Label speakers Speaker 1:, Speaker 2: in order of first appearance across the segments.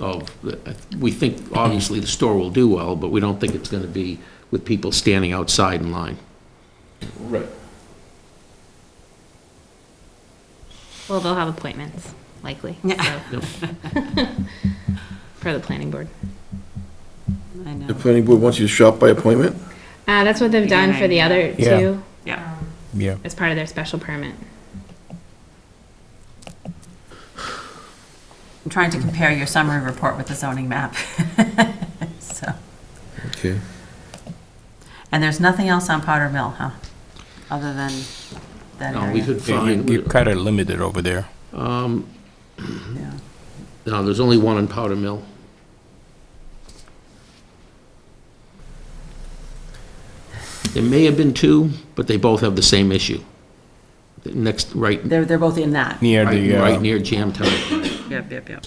Speaker 1: of, the- we think, obviously, the store will do well, but we don't think it's going to be with people standing outside in line.
Speaker 2: Right.
Speaker 3: Well, they'll have appointments, likely.
Speaker 4: Yeah.
Speaker 3: so. Per the planning board.
Speaker 5: The
Speaker 4: I know,
Speaker 5: planning board wants you to shop by appointment?
Speaker 3: Uh, that's what they've done for the other
Speaker 6: Yeah.
Speaker 3: two
Speaker 4: yeah.
Speaker 6: Yeah.
Speaker 3: as part of their special permit.
Speaker 4: I'm trying to compare your summary report with the zoning map. So,
Speaker 5: Okay.
Speaker 4: and there's nothing else on Powder Mill, huh? Other than that
Speaker 1: No, we
Speaker 4: area?
Speaker 1: could
Speaker 6: Yeah, you-
Speaker 1: find,
Speaker 6: You're kind of limited over there.
Speaker 4: Yeah.
Speaker 1: no, there's only one in Powder Mill. There may have been two, but they both have the same issue. The Next, right,
Speaker 4: They're, they're both in that.
Speaker 6: Near the,
Speaker 1: right right
Speaker 6: uh,
Speaker 1: near Jam Time.
Speaker 4: Yep, yep, yep.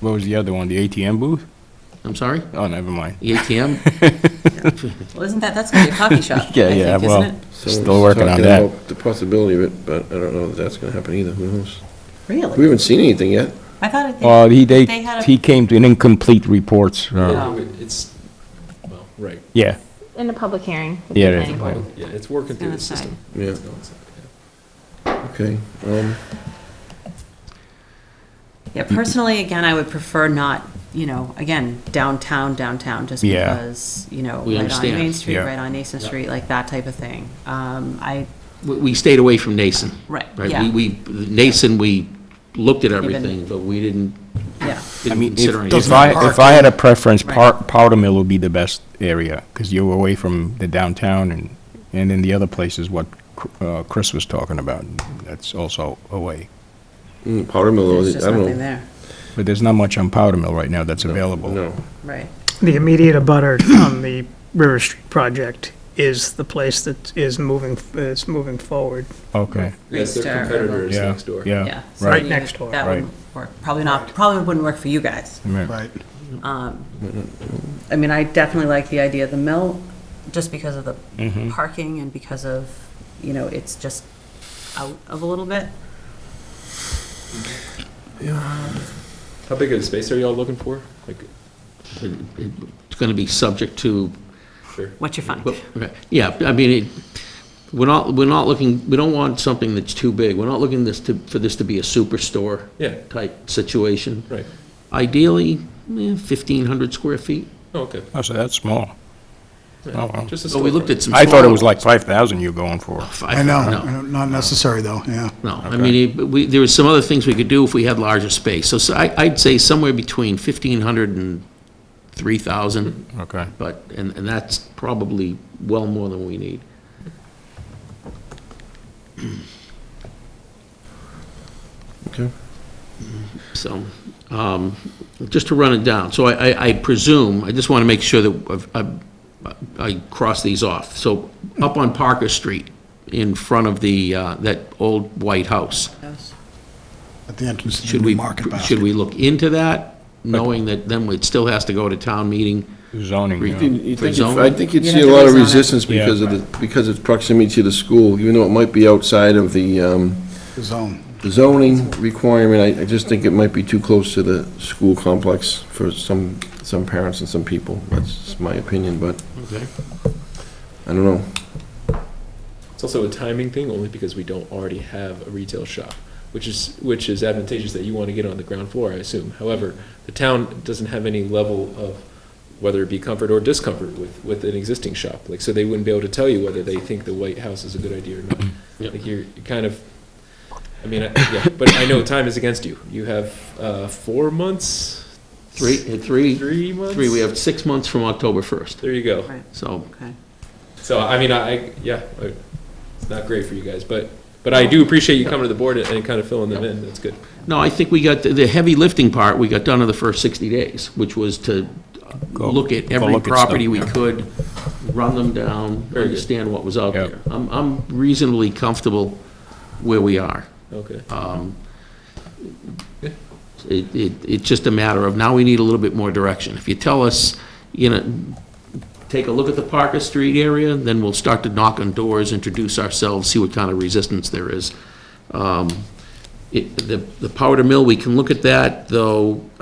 Speaker 6: what was the other one, the ATM booth?
Speaker 1: I'm sorry?
Speaker 6: Oh, never mind.
Speaker 1: The ATM?
Speaker 4: Well, isn't that, that's gonna be a coffee shop, I
Speaker 6: Yeah, yeah,
Speaker 4: think,
Speaker 6: well-
Speaker 4: isn't it?
Speaker 5: Someone's
Speaker 6: Still working on
Speaker 5: talking
Speaker 6: that.
Speaker 5: about The possibility of it, but I don't know that that's gonna happen either, who knows? We
Speaker 4: Really?
Speaker 5: haven't seen anything yet.
Speaker 4: I thought it,
Speaker 6: Well, he, they,
Speaker 4: They had a- Oh,
Speaker 6: he came to an incomplete reports. uh,
Speaker 4: No.
Speaker 2: It's, well, right,
Speaker 6: Yeah,
Speaker 3: In a public hearing. with the
Speaker 6: Yeah, it is a
Speaker 3: planning
Speaker 6: public-
Speaker 3: board.
Speaker 2: yeah, it's working through the system.
Speaker 5: Yeah,
Speaker 2: It's going inside, yeah.
Speaker 5: okay. Um,
Speaker 4: yeah,
Speaker 6: Mm-hmm.
Speaker 4: personally, again, I would prefer not, you know, again, downtown, downtown, just
Speaker 6: Yeah.
Speaker 4: because, you know,
Speaker 1: We
Speaker 4: right on
Speaker 1: understand.
Speaker 4: Main Street,
Speaker 6: Yeah.
Speaker 4: right on Nason Street, like that type of thing. Um, I,
Speaker 1: We- We stayed away from Nason.
Speaker 4: Right,
Speaker 1: Right,
Speaker 4: yeah.
Speaker 1: we, we, Nason, we looked at everything, but we didn't,
Speaker 4: yeah.
Speaker 6: I
Speaker 1: didn't
Speaker 6: mean,
Speaker 1: consider
Speaker 6: if
Speaker 1: anything.
Speaker 6: if I, if I had a preference,
Speaker 4: Right.
Speaker 6: Pow- Powder Mill would be the best area, because you're away from the downtown and, and then the other places what Cr- uh, Chris was talking about, that's also away.
Speaker 5: mm, Powder Mill,
Speaker 4: There's
Speaker 5: I
Speaker 4: just nothing
Speaker 5: don't know.
Speaker 4: there,
Speaker 6: But there's not much on Powder Mill right now that's available.
Speaker 5: No,
Speaker 4: right.
Speaker 7: the immediate abutter on the River Street project is the place that is moving, is moving forward.
Speaker 6: Okay,
Speaker 2: Yes, their
Speaker 4: Star.
Speaker 2: competitors
Speaker 6: yeah,
Speaker 2: next door.
Speaker 6: yeah,
Speaker 4: Yeah. so
Speaker 6: right,
Speaker 7: Right
Speaker 4: you-
Speaker 7: next door.
Speaker 4: That
Speaker 6: Right.
Speaker 4: wouldn't work, probably not, probably wouldn't work for you guys.
Speaker 6: right.
Speaker 8: Right.
Speaker 4: Um, I mean, I definitely like the idea of the mill, just because of the
Speaker 6: Mm-hmm.
Speaker 4: parking and because of, you know, it's just out of a little bit.
Speaker 2: How big of a space are y'all looking for? Like,
Speaker 1: It's gonna be subject to,
Speaker 2: sure.
Speaker 4: What you find.
Speaker 1: well, okay, yeah, I mean, it, we're not, we're not looking, we don't want something that's too big. We're not looking this to, for this to be a superstore.
Speaker 2: Yeah.
Speaker 1: Type situation.
Speaker 2: Right.
Speaker 1: Ideally, eh, fifteen hundred square feet.
Speaker 2: Oh, okay.
Speaker 6: Oh, so that's small. Oh, well.
Speaker 2: Just a
Speaker 1: So we
Speaker 2: storefront.
Speaker 1: looked at some.
Speaker 6: I thought it
Speaker 1: small-
Speaker 6: was like five thousand you're going for.
Speaker 1: Five-
Speaker 8: I know,
Speaker 1: no.
Speaker 8: I don't- not necessary, though, yeah.
Speaker 1: No, I mean, it- we, there were some other things we could do if we had larger space. So s- I, would say somewhere between fifteen hundred and three thousand,
Speaker 6: Okay.
Speaker 1: but, and, and that's probably well more than we need.
Speaker 5: okay.
Speaker 1: So, um, just to run it down, so I, I- I presume, I just want to make sure that I've- I've- I cross these off. So up on Parker Street, in front of the, uh, that old white house,
Speaker 8: At the entrance to the
Speaker 1: should
Speaker 8: new
Speaker 1: we,
Speaker 8: market basket.
Speaker 1: should we look into that, knowing that then it still has to go to town meeting?
Speaker 6: Zoning, yeah.
Speaker 1: Re-
Speaker 5: You- you
Speaker 1: For
Speaker 5: think
Speaker 1: zoning?
Speaker 5: you'd- I think you'd
Speaker 4: You'd
Speaker 5: see a
Speaker 4: have to
Speaker 5: lot of
Speaker 4: rezone it.
Speaker 5: resistance
Speaker 6: Yeah.
Speaker 5: because of the, because of proximity to the school, even though it might be outside of the, um,
Speaker 8: The zone.
Speaker 5: the zoning requirement. I, I just think it might be too close to the school complex for some, some parents and some people. That's just my opinion, but
Speaker 1: Okay.
Speaker 5: I don't know.
Speaker 2: It's also a timing thing, only because we don't already have a retail shop, which is, which is advantageous that you want to get on the ground floor, I assume. However, the town doesn't have any level of, whether it be comfort or discomfort with, with an existing shop. Like, so they wouldn't be able to tell you whether they think the White House is a good idea or not.
Speaker 1: Yep.
Speaker 2: Like, you're, you're kind of, I mean, I- yeah, but I know time is against you. You have, uh, four months?
Speaker 1: Three, three,
Speaker 2: Three months?
Speaker 1: three, we have six months from October 1st,
Speaker 2: There you go.
Speaker 4: Right.
Speaker 1: so.
Speaker 4: Okay.
Speaker 2: So, I mean, I, I- yeah, I- it's not great for you guys, but, but I do appreciate you coming to the board and- and kind of filling them in. That's good.
Speaker 1: No, I think we got, the- the heavy lifting part, we got done in the first 60 days, which was to
Speaker 6: Go-
Speaker 1: look at
Speaker 6: go
Speaker 1: every
Speaker 6: look at
Speaker 1: property
Speaker 6: stuff,
Speaker 1: we
Speaker 6: yeah.
Speaker 1: could, run them down,
Speaker 2: Very good.
Speaker 1: understand what was out
Speaker 6: Yeah.
Speaker 1: there. I'm I'm reasonably comfortable where we are.
Speaker 2: Okay.
Speaker 1: Um, It, it, it's just a matter of, now we need a little bit more direction. If you tell us, you know, take a look at the Parker Street area, then we'll start to knock on doors, introduce ourselves, see what kind of resistance there is. Um, It, the, the Powder Mill, we can look at that, though